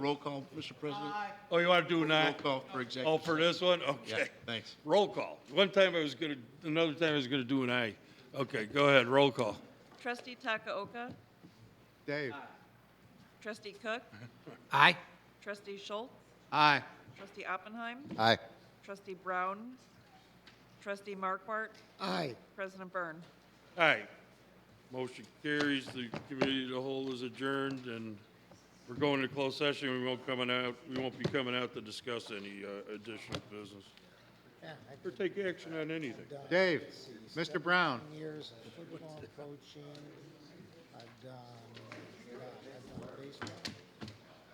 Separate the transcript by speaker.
Speaker 1: Roll call, Mr. President?
Speaker 2: Oh, you want to do an
Speaker 1: Roll
Speaker 2: aye?
Speaker 1: call for
Speaker 2: Oh,
Speaker 1: executive.
Speaker 2: for this one? Okay.
Speaker 1: thanks.
Speaker 2: Roll call. One time I was gonna, another time I was gonna do an aye. Okay, go ahead, roll call.
Speaker 3: Trustee Takaoka,
Speaker 4: Dave.
Speaker 3: Trustee Cook,
Speaker 4: Aye.
Speaker 3: Trustee Schultz,
Speaker 4: Aye.
Speaker 3: Trustee Oppenheim,
Speaker 4: Aye.
Speaker 3: Trustee Brown, Trustee Markwart,
Speaker 4: Aye.
Speaker 3: President Byrne.
Speaker 2: All right. Motion carries, the committee of the whole is adjourned, and we're going to closed session, we won't coming out, we won't be coming out to discuss any uh, additional business. Or take action on anything.
Speaker 4: Dave. Mr. Brown.
Speaker 5: years of football coaching. uh, I've done, I've done baseball.